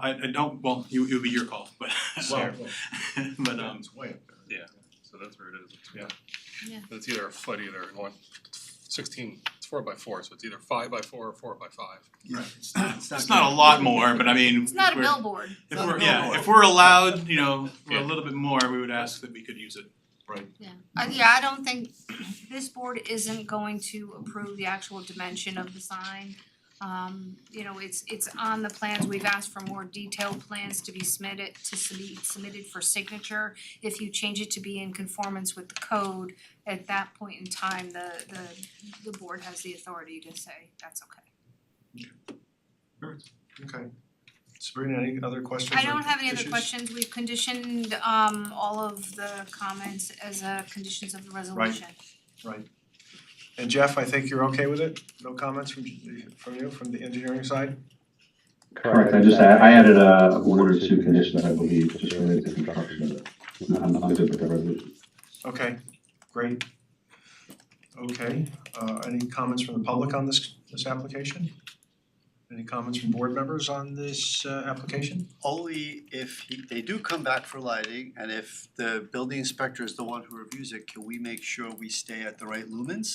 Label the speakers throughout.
Speaker 1: I I don't, well, it would it would be your call, but
Speaker 2: Well,
Speaker 1: but um
Speaker 2: it's way up there.
Speaker 3: Yeah. So that's where it is, it's yeah.
Speaker 4: Yeah.
Speaker 3: It's either a foot either and one sixteen, it's four by four, so it's either five by four or four by five.
Speaker 2: It's not, it's
Speaker 1: it's not a lot more, but I mean,
Speaker 4: It's not a
Speaker 1: we're-
Speaker 4: billboard.
Speaker 1: if
Speaker 2: not a
Speaker 1: we're, yeah,
Speaker 2: billboard.
Speaker 1: if we're allowed, you know, for a
Speaker 3: Yeah.
Speaker 1: little bit more, we would ask that we could use it.
Speaker 4: Uh, yeah, I don't think, this board isn't going to approve the actual dimension of the sign. Um, you know, it's it's on the plans, we've asked for more detailed plans to be submitted, to be submitted for signature. If you change it to be in conformance with the code, at that point in time, the the the board has the authority to say, that's okay.
Speaker 2: Okay. Sabrina, any other questions or
Speaker 4: I don't have any other
Speaker 2: issues?
Speaker 4: questions, we've conditioned um all of the comments as uh conditions of the resolution.
Speaker 2: And Jeff, I think you're okay with it? No comments from from you, from the engineering side?
Speaker 5: Correct, I just, add- I added uh, a one or two conditions, I believe, just related to construction, but not, not to the resolution.
Speaker 2: Okay, great. Okay, uh any comments from the public on this this application? Any comments from board members on this uh application?
Speaker 6: Only if he- they do come back for lighting and if the building inspector is the one who reviews it, can we make sure we stay at the right lumens?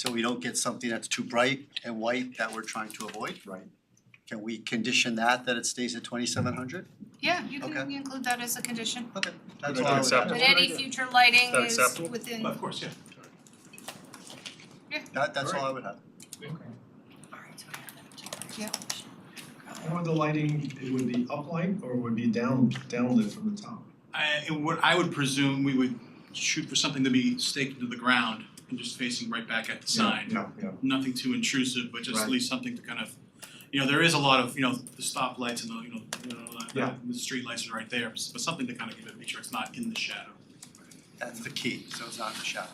Speaker 6: So we don't get something that's too bright and white that we're trying to avoid?
Speaker 2: Right.
Speaker 6: Can we condition that, that it stays at twenty-seven hundred?
Speaker 4: Yeah, you can
Speaker 6: Okay.
Speaker 4: include that as a condition.
Speaker 6: Okay,
Speaker 2: That's
Speaker 6: that's all I would
Speaker 3: acceptable.
Speaker 4: But
Speaker 6: have.
Speaker 4: any future lighting
Speaker 3: Is that
Speaker 4: is
Speaker 3: acceptable?
Speaker 4: within,
Speaker 1: But of course, yeah.
Speaker 6: That, that's all I would have.
Speaker 4: yeah,
Speaker 2: And would the lighting, it would be uplight or would be down downlit from the top?
Speaker 1: I it would I would presume we would shoot for something to be staked into the ground and just facing right back at the sign.
Speaker 2: Yeah, yeah.
Speaker 1: Nothing too intrusive, but just at
Speaker 2: Right.
Speaker 1: least something to kind of, you know, there is a lot of, you know, the stoplights and the, you know, you know,
Speaker 2: Yeah.
Speaker 1: the- the street lights are right there, but something to kind of give it a picture, it's not in the shadow.
Speaker 6: That's the key, so it's not in the shadow.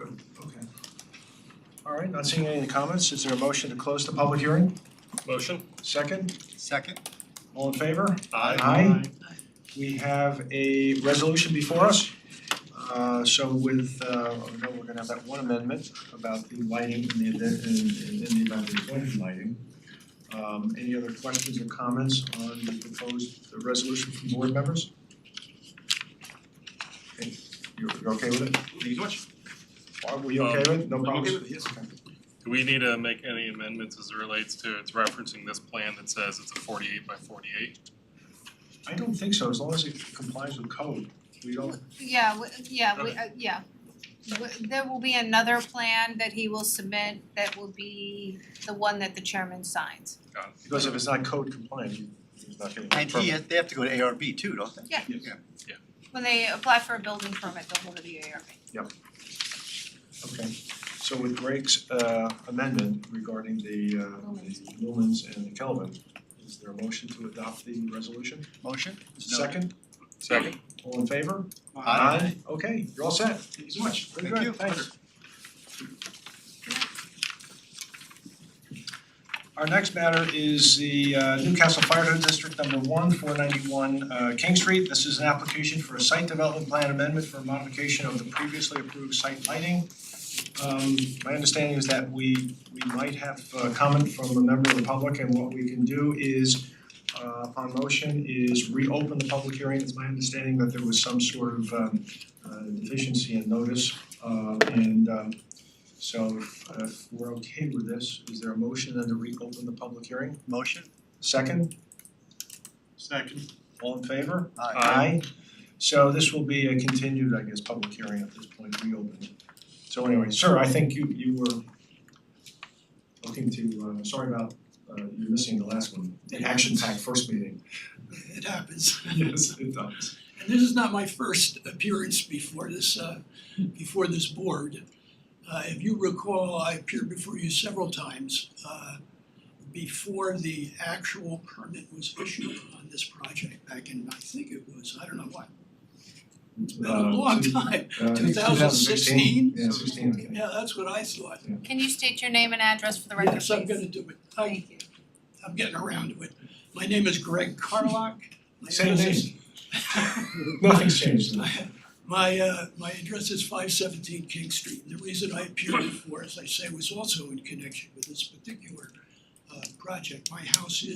Speaker 2: Okay. All right, not seeing any comments, is there a motion to close the public hearing?
Speaker 3: Motion?
Speaker 2: Second,
Speaker 6: Second,
Speaker 2: all in favor?
Speaker 3: Aye.
Speaker 2: We have a resolution before us. Uh, so with, uh, oh, no, we're gonna have that one amendment about the lighting and the, event- and, and in the event of appointed lighting. Um, any other questions or comments on the proposed the resolution from board members? Okay, you're, you're okay with it?
Speaker 1: Thank you so much.
Speaker 2: Barb, were you okay with it? No
Speaker 1: I'm okay
Speaker 2: problems?
Speaker 1: with it, yes.
Speaker 2: Okay.
Speaker 3: Do we need to make any amendments as it relates to, it's referencing this plan that says it's a forty-eight by forty-eight?
Speaker 2: I don't think so, as long as it complies with code, we don't,
Speaker 4: yeah, w- yeah, we, uh, yeah. W- There will be another plan that he will submit that will be the one that the chairman signs.
Speaker 3: Got it.
Speaker 2: because if it's not code compliant, you- it's not gonna. be
Speaker 6: and he, they have to go to ARB too, don't they?
Speaker 4: When they apply for a building permit, they'll go to the ARB.
Speaker 2: Okay, so with Greg's uh amendment regarding the uh
Speaker 4: Lumens.
Speaker 2: the lumens and the Kelvin, is there a motion to adopt the resolution?
Speaker 6: Motion?
Speaker 2: Second,
Speaker 3: Second.
Speaker 2: all in favor?
Speaker 6: Aye.
Speaker 2: Okay, you're all set. Thank you so much. Very
Speaker 6: Thank
Speaker 2: good,
Speaker 6: you.
Speaker 2: thanks. Our next matter is the uh, Newcastle Fire District Number One, four ninety-one uh King Street. This is an application for a site development plan amendment for modification of the previously approved site lighting. Um my understanding is that we we might have a comment from a member of the public and what we can do is uh upon motion is reopen the public hearing. It's my understanding that there was some sort of um uh deficiency in notice. Uh and um so if if we're okay with this, is there a motion then to reopen the public hearing?
Speaker 6: Motion?
Speaker 2: Second,
Speaker 1: Second.
Speaker 2: all in favor?
Speaker 6: Aye.
Speaker 2: So this will be a continued, I guess, public hearing at this point, reopened. So anyway, sir, I think you you were looking to, uh sorry about uh you missing the last one, the action packed first meeting.
Speaker 7: It happens.
Speaker 2: Yes, it does.
Speaker 7: And this is not my first appearance before this, uh, before this board. Uh, if you recall, I appeared before you several times, uh, before the actual permit was issued on this project back in, I think it was, I don't know what, it's been a
Speaker 2: Uh,
Speaker 7: long
Speaker 2: two-
Speaker 7: time.
Speaker 2: Uh, I think it's
Speaker 7: 2016?
Speaker 2: Yeah, sixteen, I think.
Speaker 7: Yeah, that's what I thought.
Speaker 4: Can you state your name and address for the record,
Speaker 7: Yes, I'm
Speaker 4: please?
Speaker 7: gonna do it. I,
Speaker 4: Thank you.
Speaker 7: I'm getting around to it. My name is Greg Carlock. My
Speaker 2: Same
Speaker 7: address
Speaker 2: thing,
Speaker 7: is-
Speaker 2: nothing's changed.
Speaker 7: My, uh, my address is five seventeen King Street. And The reason I appeared before, as I say, was also in connection with this particular, uh, project. My house is.